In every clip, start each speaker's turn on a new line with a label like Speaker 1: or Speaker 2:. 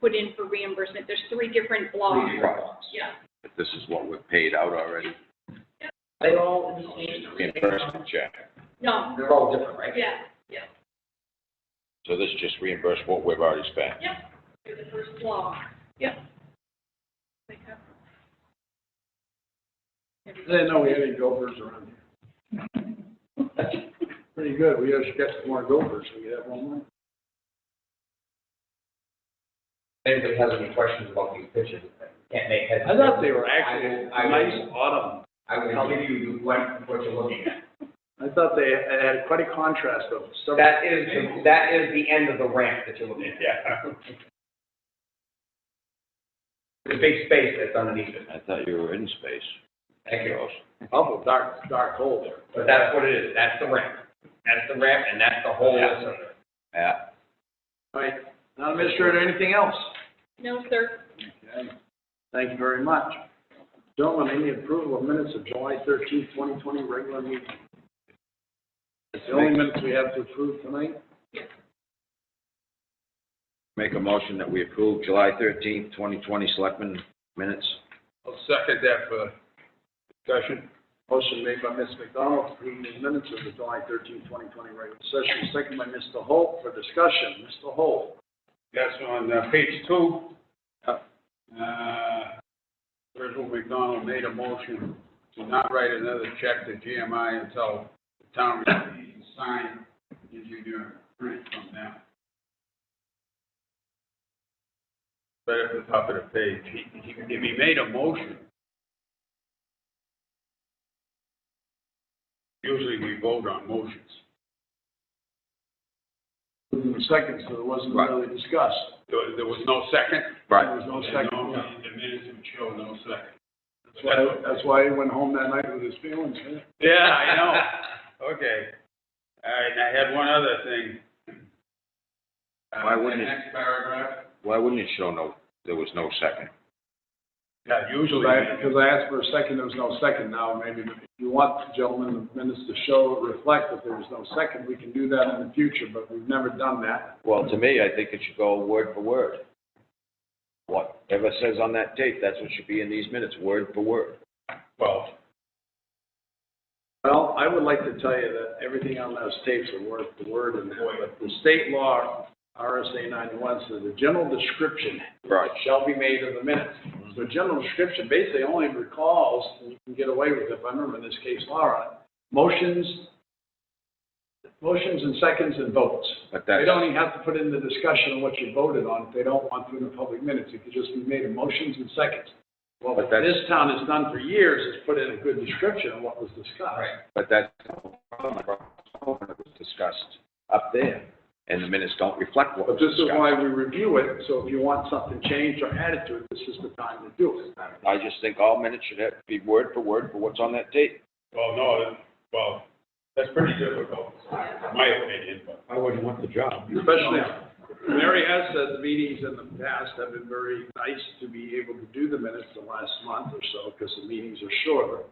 Speaker 1: put in for reimbursement. There's three different blocks.
Speaker 2: products.
Speaker 1: Yeah.
Speaker 2: But this is what we've paid out already,
Speaker 3: They all in the same.
Speaker 2: reimbursement check.
Speaker 1: No,
Speaker 3: They're all different, right?
Speaker 1: yeah, yeah.
Speaker 2: So this just reimburse what we've already spent.
Speaker 1: Yep, for the first block. Yep.
Speaker 4: I didn't know we had any gophers around here. Pretty good, we just got some more gophers, we have one more.
Speaker 5: Anybody has any questions about these pictures? Can't make heads.
Speaker 4: I thought they were actually
Speaker 5: I will- I will-
Speaker 4: nice autumn.
Speaker 5: I will give you what, what you're looking at.
Speaker 4: I thought they had quite a contrast of several.
Speaker 5: That is, the- that is the end of the ramp that you're looking at. Yeah. The big space that's underneath it.
Speaker 2: I thought you were in space.
Speaker 5: Thank you.
Speaker 4: Awful dark, dark hole there.
Speaker 5: But that's what it is. That's the ramp. That's the ramp and that's the whole list of it.
Speaker 2: Yeah.
Speaker 4: All right, town administrator, anything else?
Speaker 1: No, sir.
Speaker 4: Okay. Thank you very much. Gentlemen, any approval of minutes of July thirteenth, twenty twenty, regular meeting? It's the only minutes we have to approve tonight.
Speaker 2: Make a motion that we approve July thirteenth, twenty twenty, selectmen minutes.
Speaker 4: I'll second that for discussion. Motion made by Ms. McDonald, to approve the minutes of the July 13, 2020 regular session, second by Mr. Holt for discussion. Mr. Holt?
Speaker 6: That's on uh, page two. Uh, Virgil McDonald made a motion to not write another check to GMI until the town receives and sign, gives you your print from them. Right at the top of the page, He- he- if he made a motion, usually we vote on motions.
Speaker 4: Second, so it wasn't
Speaker 2: Right.
Speaker 4: really discussed.
Speaker 6: There there was no second?
Speaker 2: Right.
Speaker 4: There was no
Speaker 6: And
Speaker 4: second.
Speaker 6: no- The minutes would show no second.
Speaker 4: That's why, that's why he went home that night with his feelings hurt.
Speaker 6: Yeah, I know. Okay. All right, and I had one other thing. Uh,
Speaker 2: Why wouldn't
Speaker 6: the
Speaker 2: it-
Speaker 6: Next paragraph.
Speaker 2: Why wouldn't it show no, there was no second?
Speaker 6: Yeah, usually.
Speaker 4: Because I- because I asked for a second, there was no second. Now, maybe if you want, gentlemen, the minutes to show, reflect that there was no second, we can do that in the future, but we've never done that.
Speaker 2: Well, to me, I think it should go word for word. Whatever says on that tape, that's what should be in these minutes, word for word.
Speaker 6: Well,
Speaker 4: Well, I would like to tell you that everything on those tapes are word for word, and that the state law, RSA ninety-one, says the general description
Speaker 2: Right.
Speaker 4: shall be made in the minutes. So general description basically only recalls, and you can get away with it, if I remember in this case law, on it, motions, motions and seconds and votes.
Speaker 2: But
Speaker 4: They
Speaker 2: that's,
Speaker 4: don't even have to put in the discussion of what you voted on, if they don't want to in the public minutes, it could just be made in motions and seconds. Well,
Speaker 2: But that's-
Speaker 4: this town has done for years, is put in a good description of what was discussed.
Speaker 2: but that's the problem. It was discussed up there, and the minutes don't reflect what
Speaker 4: But
Speaker 2: was
Speaker 4: this is
Speaker 2: discussed.
Speaker 4: why we review it, so if you want something changed or added to it, this is the time to do it.
Speaker 2: I just think all minutes should have, be word for word for what's on that tape.
Speaker 6: well, no, that- well, that's pretty difficult, in my opinion, but. I wouldn't want the job.
Speaker 4: Especially, Mary has said the meetings in the past have been very nice to be able to do the minutes the last month or so, because the meetings are shorter.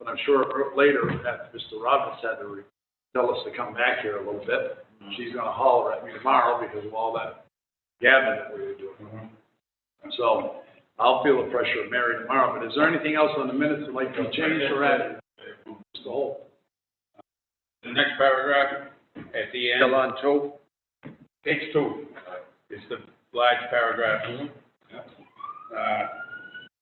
Speaker 4: But I'm sure later, after Mr. Roberts had to re- tell us to come back here a little bit, she's gonna holler at me tomorrow because of all that gabbing that we were doing. So, I'll feel the pressure of Mary tomorrow, but is there anything else on the minutes that'd like to be changed or added? Mr. Holt?
Speaker 6: The next paragraph, at the end.
Speaker 2: Still on two?
Speaker 6: Page two, it's the large paragraph. Uh,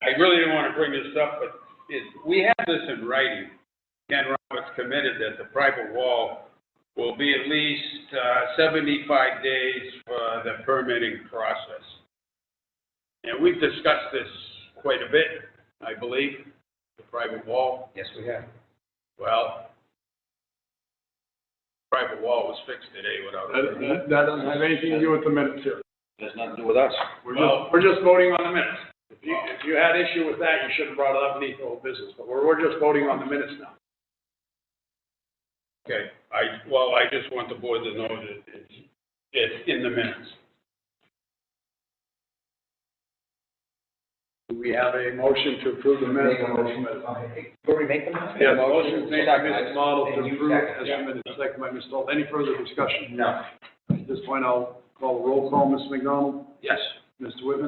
Speaker 6: I really didn't want to bring this up, but it, we have this in writing. Ken Roberts committed that the private wall will be at least uh, seventy-five days for the permitting process. And we've discussed this quite a bit, I believe, the private wall.
Speaker 5: Yes, we have.
Speaker 6: Well, private wall was fixed today without. a permit.
Speaker 4: That, that doesn't have anything to do with the minutes here.
Speaker 2: Has nothing to do with us.
Speaker 4: We're
Speaker 6: Well-
Speaker 4: just, we're just voting on the minutes. If you, if you had issue with that, you should have brought it up beneath the whole business, but we're, we're just voting on the minutes now.
Speaker 6: Okay, I, well, I just want the board to know that it's, it's in the minutes.
Speaker 4: Do we have a motion to approve the minutes?
Speaker 5: Make a motion. Cory, make the motion?
Speaker 4: Yeah, motion made by
Speaker 5: Second.
Speaker 4: Mr. Model to
Speaker 5: And you
Speaker 4: approve as
Speaker 5: second, yeah.
Speaker 4: submitted, second by Mr. Holt. Any further discussion?
Speaker 5: No.
Speaker 4: At this point, I'll call a roll call. Mr. McDonald?
Speaker 2: Yes.
Speaker 4: Mr. Whitman?